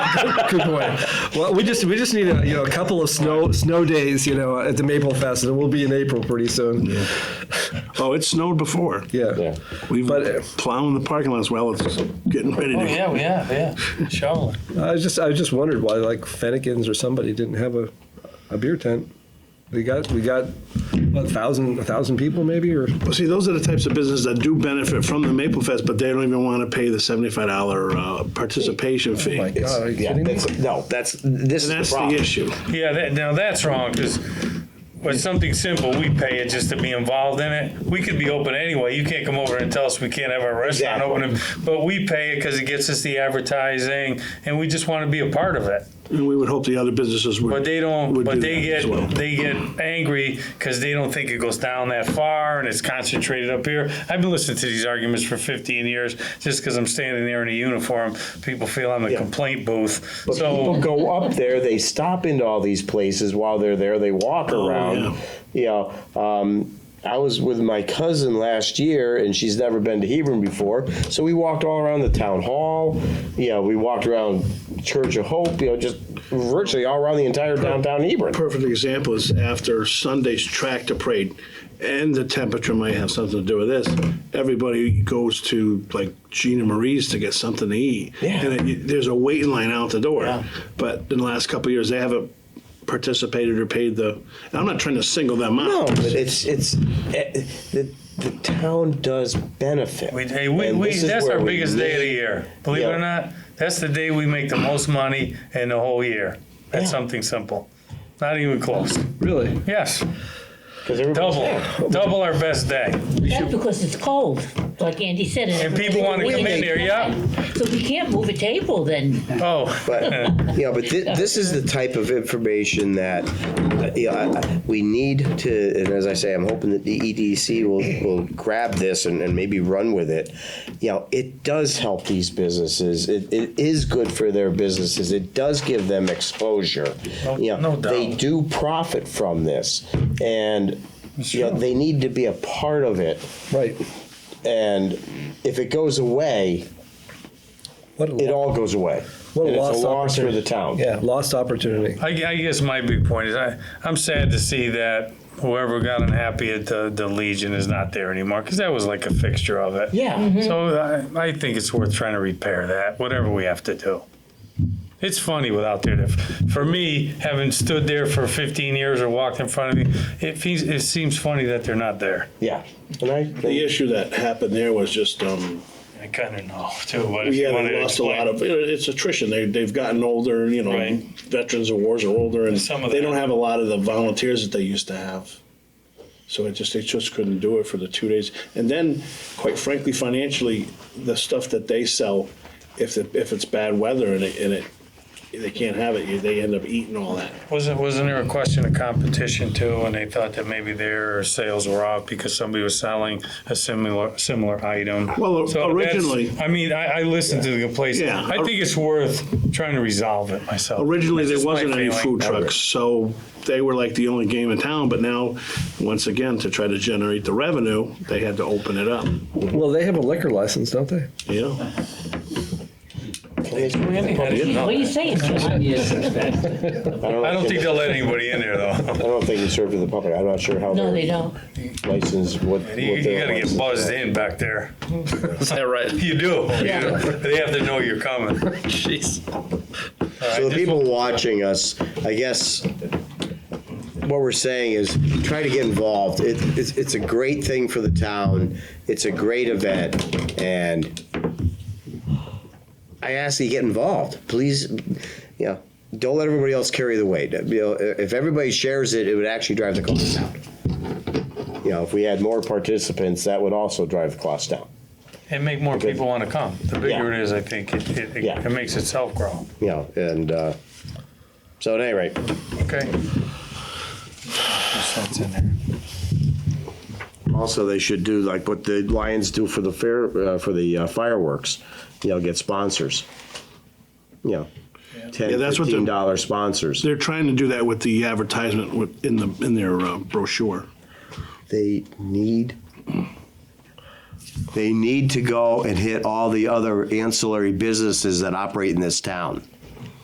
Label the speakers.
Speaker 1: creep away.
Speaker 2: Well, we just we just need a you know a couple of snow snow days you know at the Maple Fest, and we'll be in April pretty soon. Yeah.
Speaker 3: Oh, it snowed before.
Speaker 4: Yeah.
Speaker 3: We've
Speaker 2: But, uh,
Speaker 3: been plowing the parking lots while it's getting ready
Speaker 1: Oh,
Speaker 3: to.
Speaker 1: yeah, we have, yeah. Shoveling.
Speaker 2: I just I just wondered why like Fennekins or somebody didn't have a, a beer tent. We got we got what, a thousand a thousand people maybe or
Speaker 3: Well, see, those are the types of businesses that do benefit from the Maple Fest, but they don't even want to pay the seventy-five dollar uh, participation fee.
Speaker 5: Oh
Speaker 2: my
Speaker 3: And
Speaker 2: God, are you
Speaker 4: Yeah,
Speaker 2: kidding me?
Speaker 4: that's, no, that's, this is the
Speaker 3: that's the
Speaker 4: problem.
Speaker 3: issue.
Speaker 5: Yeah, that, now that's wrong, because with something simple, we pay it just to be involved in it. We could be open anyway. You can't come over and tell us we can't have our restaurant
Speaker 4: Exactly.
Speaker 5: open, but we pay it because it gets us the advertising, and we just want to be a part of it.
Speaker 3: And we would hope the other businesses would.
Speaker 5: But they don't,
Speaker 3: would do
Speaker 5: but they
Speaker 3: that as
Speaker 5: get,
Speaker 3: well.
Speaker 5: they get angry because they don't think it goes down that far and it's concentrated up here. I've been listening to these arguments for 15 years, just because I'm standing there in a uniform, people feel I'm a complaint booth.
Speaker 4: But people
Speaker 5: So,
Speaker 4: go up there, they stop into all these places while they're there, they walk
Speaker 5: Oh,
Speaker 4: around. You know, um, I was with my cousin last year and she's never been to Hebron before. So we walked all around the town hall. You know, we walked around Church of Hope, you know, just virtually all around the entire downtown Hebron.
Speaker 3: Perfect example is after Sunday's tractor parade, and the temperature might have something to do with this. Everybody goes to like Gina Marie's to get something to eat,
Speaker 4: Yeah.
Speaker 3: and it, there's a waiting line out the door.
Speaker 4: Yeah.
Speaker 3: But in the last couple of years, they haven't participated or paid the. and I'm not trying to single them out.
Speaker 4: No, but it's, it's, eh, the, the town does benefit.
Speaker 5: we, hey, we,
Speaker 4: And
Speaker 5: we,
Speaker 4: this is
Speaker 5: that's
Speaker 4: where
Speaker 5: our
Speaker 4: we
Speaker 5: biggest day of the
Speaker 4: need-
Speaker 5: year. Believe it
Speaker 4: Yeah.
Speaker 5: or not, that's the day we make the most money in the whole year. That's
Speaker 4: Yeah.
Speaker 5: something simple. Not even close.
Speaker 2: really
Speaker 5: Yes,
Speaker 4: 'cause everybody's
Speaker 5: double,
Speaker 4: there.
Speaker 5: double our best day.
Speaker 6: That's because it's cold, like Andy said.
Speaker 5: And people wanna come in there, yeah.
Speaker 6: So we can't move a table then.
Speaker 5: Oh.
Speaker 4: But, you know, but thi- this is the type of information that, uh, you know, I- I- we need to, and as I say, I'm hoping that the EDC will, will grab this and, and maybe run with it. You know, it does help these businesses. It, it is good for their businesses. It does give them exposure.
Speaker 2: Oh,
Speaker 4: You know,
Speaker 5: no doubt.
Speaker 4: They do profit from this and, you know, they need to be a part of it.
Speaker 2: right
Speaker 4: And if it goes away,
Speaker 2: what a
Speaker 4: it
Speaker 2: lo-
Speaker 4: all goes away.
Speaker 2: what
Speaker 4: And
Speaker 2: a
Speaker 4: it's
Speaker 2: lost
Speaker 4: a loss for
Speaker 2: opportunity
Speaker 4: the town.
Speaker 2: yeah lost opportunity
Speaker 5: I, I guess my big point is I, I'm sad to see that whoever got unhappy at the, the Legion is not there anymore because that was like a fixture of it.
Speaker 4: Yeah.
Speaker 5: So I, I think it's worth trying to repair that, whatever we have to do. It's funny without there. For me, having stood there for 15 years or walked in front of me, it, feels, it seems funny that they're not there.
Speaker 4: Yeah. And I,
Speaker 3: The issue that happened there was just um,
Speaker 5: I kind of know too. But if you
Speaker 3: yeah,
Speaker 5: wanted
Speaker 3: they
Speaker 5: to
Speaker 3: lost a lot
Speaker 5: explain-
Speaker 3: of. It's attrition. They they've gotten older. You know,
Speaker 5: Right.
Speaker 3: veterans of wars are older, and
Speaker 5: Some of
Speaker 3: they
Speaker 5: that.
Speaker 3: don't have a lot of the volunteers that they used to have. So it just they just couldn't do it for the two days. And then, quite frankly, financially, the stuff that they sell, if the, if it's bad weather and it, and it they can't have it, they end up eating all that.
Speaker 5: Wasn't, wasn't there a question of competition too, and they thought that maybe their sales were off because somebody was selling a similar, similar item?
Speaker 3: Well,
Speaker 5: So that's-
Speaker 3: originally-
Speaker 5: I mean, I, I listened to the complaints.
Speaker 3: Yeah.
Speaker 5: I think it's worth trying to resolve it myself.
Speaker 3: Originally,
Speaker 5: That's
Speaker 3: there
Speaker 5: just my
Speaker 3: wasn't any
Speaker 5: feeling.
Speaker 3: food trucks, so they were like the only game in town. But now, once again, to try to generate the revenue, they had to open it up.
Speaker 2: well they have a liquor license don't they
Speaker 3: Yeah.
Speaker 6: What are you saying? John?
Speaker 5: I don't think they'll let anybody in there though.
Speaker 4: I don't think it's served to the public. I'm not sure how
Speaker 6: No, they
Speaker 4: their
Speaker 6: don't.
Speaker 4: license, what. what
Speaker 5: You, you
Speaker 4: their
Speaker 5: gotta get
Speaker 4: license
Speaker 5: buzzed
Speaker 4: is.
Speaker 5: in back there.
Speaker 2: is that right
Speaker 5: You do. You do. They have to know you're coming.
Speaker 2: jeez
Speaker 4: So the people watching us, I guess, what we're saying is try to get involved. It, it's, it's a great thing for the town. It's a great event and I ask that you get involved. Please, you know, don't let everybody else carry the weight. You know, if everybody shares it, it would actually drive the cost down. You know, if we had more participants, that would also drive the cost down.
Speaker 5: And make more people wanna come. The bigger
Speaker 4: Yeah.
Speaker 5: it is, I think, it, it,
Speaker 4: Yeah.
Speaker 5: it makes itself grow.
Speaker 4: you know, and uh, so at any rate,
Speaker 5: Okay. That's in there.
Speaker 4: also they should do like what the Lions do for the fair uh, for the uh, fireworks, you know, get sponsors, you know, ten,
Speaker 3: Yeah, that's what the-
Speaker 4: fifteen dollar sponsors.
Speaker 3: They're trying to do that with the advertisement with- in the, in their uh, brochure.
Speaker 4: They need. They need to go and hit all the other ancillary businesses that operate in this town.